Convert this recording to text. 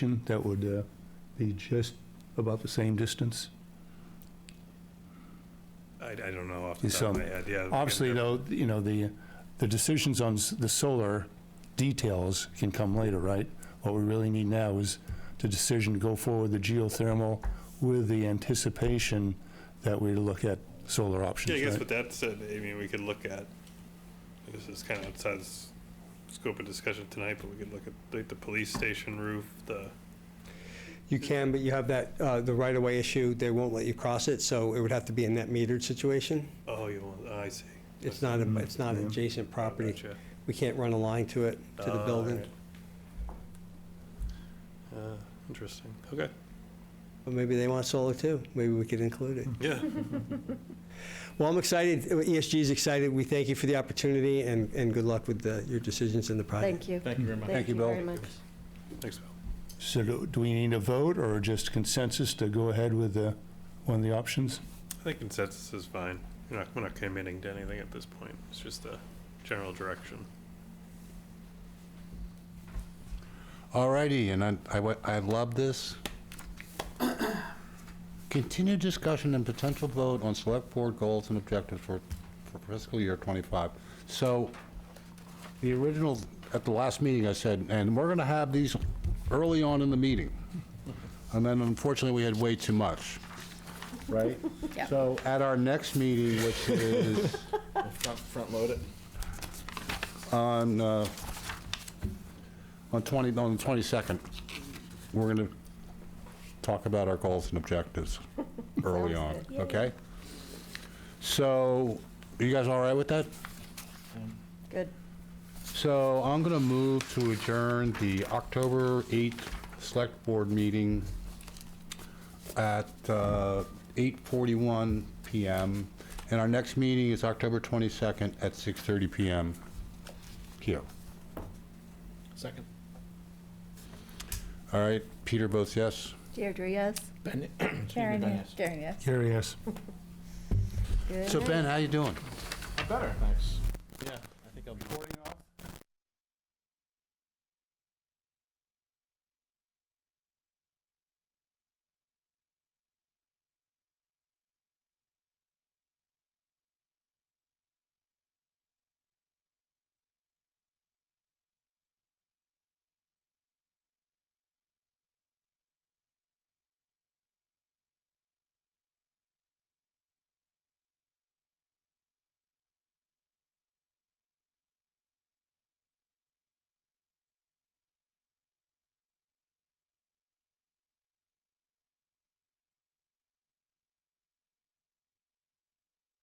that would uh, be just about the same distance. I, I don't know off the Is, top of um, my head, yeah. Obviously, though, you know, the, the decisions on s- the solar details can come later, right? What we really need now is the decision to go forward the geothermal with the anticipation that we look at solar Yeah, I options, guess right? with that said, I mean, we could look at, this is kind of outside the s- scope of discussion tonight, but we could look at like the police station roof, the, You can, but you have that, uh, the right-of-way issue, they won't let you cross it, so it would have to be a net metered situation. oh, you want, oh, I see. It's not, a- it's not Mm, yeah. adjacent Oh, property. gotcha. We can't run a line to it, to the Uh, Ah, building. alright. Ah, Interesting, okay, But maybe they want solar too, maybe we could include it. yeah, Well, I'm excited, E ESG's excited, we thank you for the opportunity, and, and good luck with the- your decisions in the project. Thank you. Thank you very much. Thank you very much. thanks, Bill. So do do we need a vote or just consensus to go ahead with the, one of the options? I think consensus is fine, we're not, we're not committing to anything at this point, it's just a general direction. Alrighty, and I- I, wa- I love this. Continued discussion and potential vote on select board goals and objectives for, for fiscal year '25. So, the original, at the last meeting, I said, and we're gonna have these early on in the meeting. And then unfortunately, we had way too much, right? Yeah. So, at our next meeting, which is Front, front load it. on, uh, on 20, on the 22nd, we're going to talk about our goals and objectives early on, Sounds good. okay? So, you guys all right with that? Good. So I'm going to move to adjourn the October 8th Select Board meeting at uh, 8:41 PM. And our next meeting is October 22nd at 6:30 PM here. Second. All right, Peter votes yes. Deirdre, yes? Ben, excuse me, Ben, yes. Karen, yes. Gary, yes. Good So night. Ben, how you doing? Better, thanks. Yeah.